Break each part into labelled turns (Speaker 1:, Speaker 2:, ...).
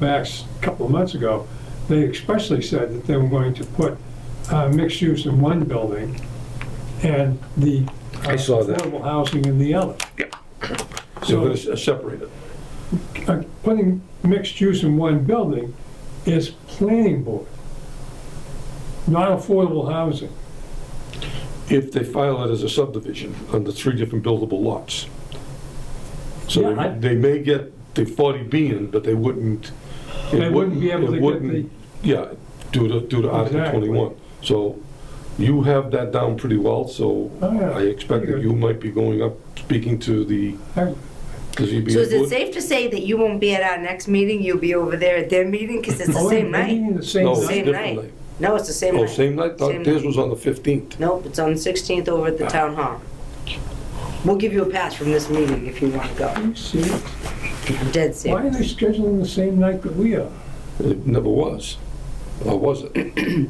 Speaker 1: Max a couple of months ago, they expressly said that they were going to put uh, mixed use in one building and the uh,
Speaker 2: I saw that.
Speaker 1: affordable housing in the other.
Speaker 3: They're
Speaker 1: So
Speaker 3: gonna s- separate it.
Speaker 1: uh, putting mixed use in one building is planning board, not affordable housing.
Speaker 3: If they file it as a subdivision on the three different buildable lots. So
Speaker 1: Yeah, I-
Speaker 3: they- they may get the 40B in, but they wouldn't. it
Speaker 1: They wouldn't be able
Speaker 3: it
Speaker 1: to get the,
Speaker 3: wouldn't- Yeah, due to, due to Article
Speaker 1: Exactly.
Speaker 3: 21. So you have that down pretty well, so
Speaker 1: Oh, yeah.
Speaker 3: I expect that
Speaker 1: Pretty good.
Speaker 3: you might be going up, speaking to the
Speaker 1: I-
Speaker 3: the ZBA.
Speaker 4: So is
Speaker 3: board.
Speaker 4: it safe to say that you won't be at our next meeting, you'll be over there at their meeting, because it's
Speaker 1: Oh,
Speaker 4: the same
Speaker 1: they're
Speaker 4: night?
Speaker 1: meeting the same
Speaker 3: No, it's
Speaker 1: night?
Speaker 4: Same
Speaker 3: different
Speaker 4: night.
Speaker 3: night.
Speaker 4: No, it's the same
Speaker 3: Oh,
Speaker 4: night.
Speaker 3: same night? Thought
Speaker 4: Same
Speaker 3: Theirs
Speaker 4: night.
Speaker 3: was on the 15th.
Speaker 4: Nope, it's on the 16th over at the
Speaker 1: Ah.
Speaker 4: town hall. We'll give you a pass from this meeting if you want to go,
Speaker 1: Are you serious?
Speaker 4: I'm
Speaker 1: Why
Speaker 4: dead
Speaker 1: are
Speaker 4: serious.
Speaker 1: they scheduling the same night that we are?
Speaker 3: It never was. Or was it?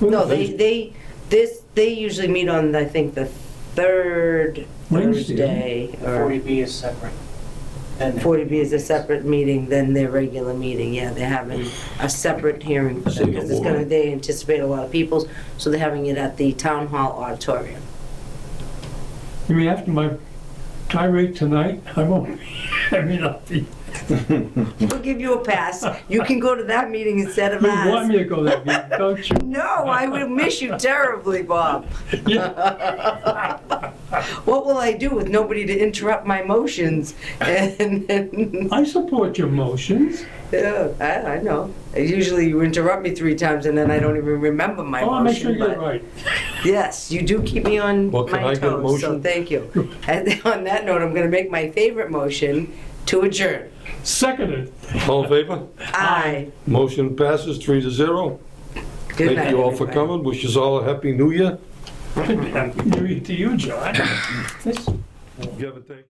Speaker 4: No, they, they, this, they usually meet on, I think, the third
Speaker 1: Wednesday.
Speaker 4: Thursday, or
Speaker 5: 40B is separate. Then
Speaker 4: 40B is a separate meeting than their regular meeting, yeah, they're having a separate hearing for them, because it's gonna, they anticipate a lot of people, so they're having it at the town hall auditorium.
Speaker 1: You mean after my tirade tonight, I won't, I mean, I'll be,
Speaker 4: We'll give you a pass. You can go to that meeting instead of
Speaker 1: you want me to
Speaker 4: ours.
Speaker 1: go that meeting, don't you?
Speaker 4: No, I will miss you terribly, Bob.
Speaker 1: Yeah,
Speaker 4: What will I do with nobody to interrupt my motions? And, and
Speaker 1: I support your motions.
Speaker 4: yeah, I, I know. Usually you interrupt me three times and then I don't even remember my
Speaker 1: Oh, I want to make sure
Speaker 4: motion.
Speaker 1: you're
Speaker 4: But
Speaker 1: right.
Speaker 4: yes, you do keep me on
Speaker 3: Well, can I
Speaker 4: my
Speaker 3: get a
Speaker 4: toes, so
Speaker 3: motion?
Speaker 4: thank you. And on that note, I'm going to make my favorite motion to adjourn.
Speaker 1: Seconded.
Speaker 3: All in favor?
Speaker 4: Aye.
Speaker 3: Motion passes three to zero.
Speaker 4: Good night.
Speaker 3: Thank you all for
Speaker 4: everybody.
Speaker 3: coming. Wish you all a happy new year.
Speaker 1: You, to you, John. This-
Speaker 3: You have a thank-